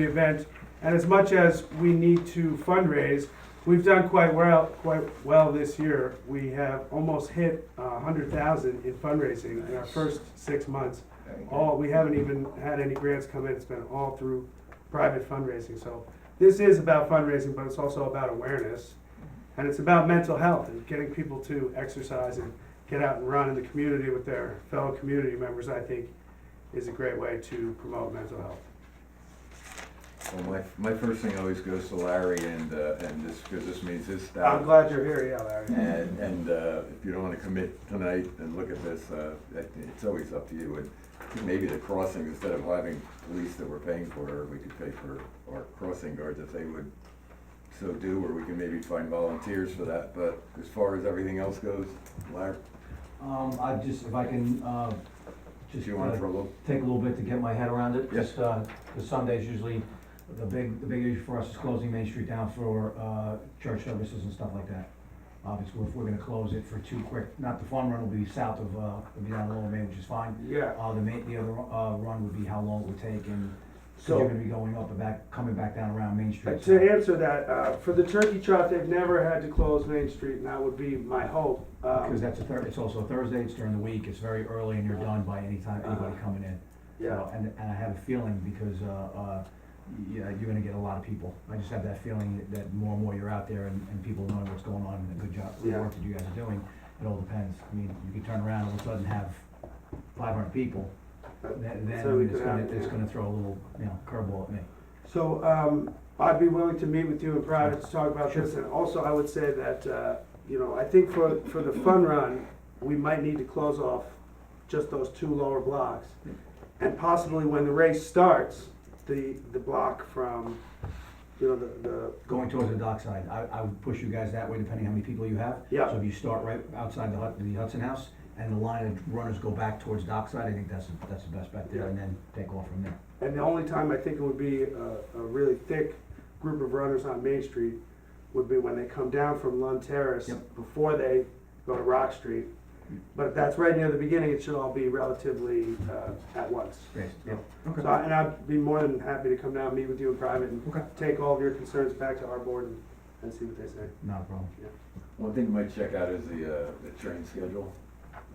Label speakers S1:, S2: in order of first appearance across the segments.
S1: the event. And as much as we need to fundraise, we've done quite well, quite well this year. We have almost hit uh, a hundred thousand in fundraising in our
S2: Nice.
S1: first six months.
S2: Very good.
S3: Oh,
S1: All, we haven't even had any grants come in, it's been all through private fundraising. So this is about fundraising, but it's also about awareness. And it's about mental health and getting people to exercise and get out and run in the community with their fellow community members, I think, is a great way to promote mental health.
S2: Well, my, my first thing always goes to Larry and, uh, and this, because this means his staff.
S1: I'm glad you're here, yeah, Larry.
S2: And, and, uh, if you don't wanna commit tonight and look at this, uh, that- it's always up to you. And maybe the crossing, instead of having police that we're paying for, we could pay for our crossing guards if they would so do, or we can maybe find volunteers for that. But as far as everything else goes, Larry,
S3: Um, I just, if I can, uh,
S2: do
S3: just
S2: you want
S3: uh,
S2: to trouble?
S3: take a little bit to get my head around it.
S2: Yes.
S3: Just, uh, 'cause Sunday's usually, the big, the big issue for us is closing Main Street down for, uh, church services and stuff like that. Obviously, if we're gonna close it for too quick, not the fun run will be south of, uh, will be down Lower Main, which is fine.
S1: Yeah,
S3: Uh, the main, the other, uh, run would be how long it would take and, so
S1: So-
S3: you're gonna be going up and back, coming back down around Main
S1: Uh,
S3: Street. so-
S1: To answer that, uh, for the turkey trot, they've never had to close Main Street, and that would be my hope. Um,
S3: Because that's a Thur, it's also a Thursday, it's during the week, it's very early and you're done by any time, anybody
S1: Uh-huh.
S3: coming in.
S1: Yeah,
S3: So, And, and I have a feeling because, uh, uh, yeah, you're gonna get a lot of people. I just have that feeling that more and more you're out there and, and people knowing what's going on and the good job, the
S1: Yeah.
S3: work that you guys are doing, it all depends. I mean, you could turn around and all of a sudden have five hundred people, then,
S1: So we
S3: then
S1: could
S3: it's gonna,
S1: have-
S3: it's
S1: yeah.
S3: gonna throw a little, you know, curveball at me.
S1: so um, I'd be willing to meet with you in private to talk about this, and also I would say that, uh, you know, I think for, for the fun run, we might need to close off just those two lower blocks. And possibly when the race starts, the, the block from, you know, the, the,
S3: Going towards the dockside, I, I would push you guys that way depending how many people you have.
S1: Yeah.
S3: So if you start right outside the Hut, the Hudson House and the line of runners go back towards dockside, I think that's, the- that's the best bet there and then take off from there.
S1: And the only time I think it would be a, a really thick group of runners on Main Street would be when they come down from Lund Terrace
S3: Yep.
S1: before they go to Rock Street. But if that's right near the beginning, it should all be relatively uh, at once.
S3: Great.
S1: Yeah.
S3: Okay.
S1: So, I- and I'd be more than happy to come down, meet with you in private, and
S3: Okay.
S1: take all of your concerns back to our board and, and see what they say.
S3: Not a problem.
S2: One thing you might check out is the, uh, the train schedule,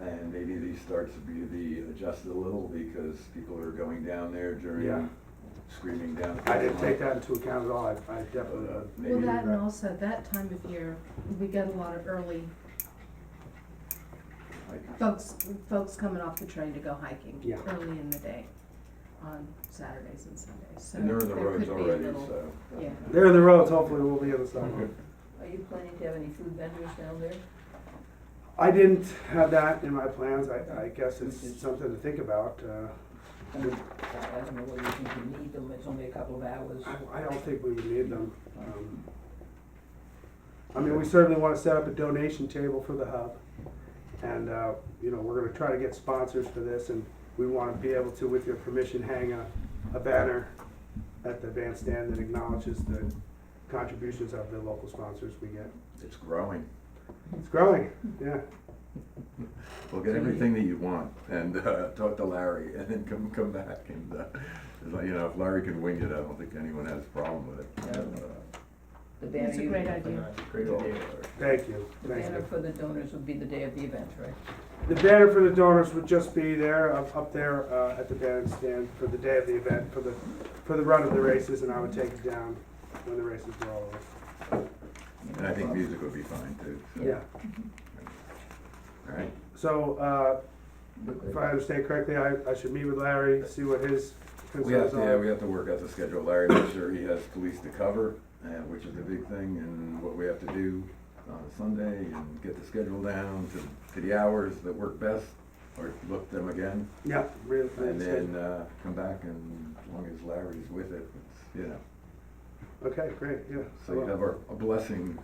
S2: and maybe these starts to be, be adjusted a little, because people are going down there
S1: Yeah.
S2: during, screaming down.
S1: I didn't take that into account at all. I, I
S2: But,
S1: definitely.
S2: uh,
S4: Well,
S2: Maybe,
S4: that and also, that time of year, we get a lot of early
S2: like,
S4: folks, folks coming off the train to go hiking.
S1: Yeah.
S4: Early in the day, on Saturdays and Sundays, so.
S2: and they're in the
S4: there
S2: roads
S4: could be a
S2: already,
S4: little-
S2: so.
S4: yeah.
S1: They're in the roads. Hopefully, we'll be on the sidewalk.
S5: Are you planning to have any food vendors down there?
S1: I didn't have that in my plans. I, I guess it's something to think about. Uh,
S5: I mean, I I don't know whether you think you need them, it's only a couple of hours.
S1: I, I don't think we would need them. Um, I mean, we certainly wanna set up a donation table for the hub. And, uh, you know, we're gonna try to get sponsors for this and we wanna be able to, with your permission, hang a, a banner at the bandstand that acknowledges the contributions of the local sponsors we get.
S2: It's growing.
S1: It's growing, yeah.
S2: Well, get everything that you want, and, uh, talk to Larry, and then come, come back, and, uh, it's like, you know, if Larry can wing it, I don't think anyone has a problem with it.
S5: Yeah.
S2: Uh,
S5: The banner
S4: That's a
S5: you-
S4: great idea.
S2: Great idea.
S1: Thank you,
S5: The
S1: thank
S5: banner
S1: you.
S5: for the donors would be the day of the event, right?
S1: The banner for the donors would just be there, up, up there, uh, at the bandstand for the day of the event, for the, for the run of the races, and I would take it down when the races were all over.
S2: And I think music would be fine, too, so.
S1: Yeah,
S2: All right,
S1: so, uh, if I understand correctly, I, I should meet with Larry, see what his
S2: We have,
S1: concerns
S2: to- yeah,
S1: are.
S2: we have to work out the schedule, Larry, make sure he has police to cover, uh, which is the big thing, and what we have to do on Sunday, and get the schedule down to, to the hours that work best, or look them again,
S1: Yeah, really,
S2: and
S1: that's good.
S2: then, uh, come back, and as long as Larry's with it, it's, you know.
S1: okay, great, yeah.
S2: uh, So you have our, a blessing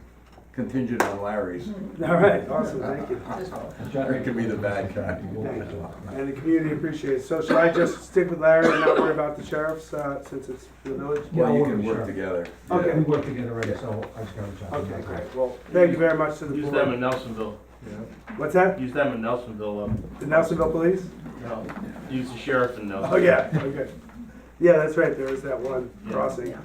S2: contingent on Larry's,
S1: All right, awesome, Hmm. thank you.
S5: Just all.
S2: Larry could be the bad guy.
S1: Thank you. And the community appreciates, it. so should I just stick with Larry and not worry about the sheriffs, uh, since it's the village?
S2: Well, you can
S3: Yeah,
S2: work
S3: sure.
S2: together.
S1: Okay.
S2: Yeah.
S3: We work together already, so I just gotta reach out.
S1: Okay, great, well, thank you very much to the
S6: Use them
S1: board.
S6: in Nelsonville.
S1: What's that,
S6: Use them in Nelsonville.
S1: the Nelsonville Police?
S6: Um, no, use the sheriff in Nelsonville.
S1: Oh, yeah, okay. Yeah, that's right, there was that one crossing.
S4: Yeah.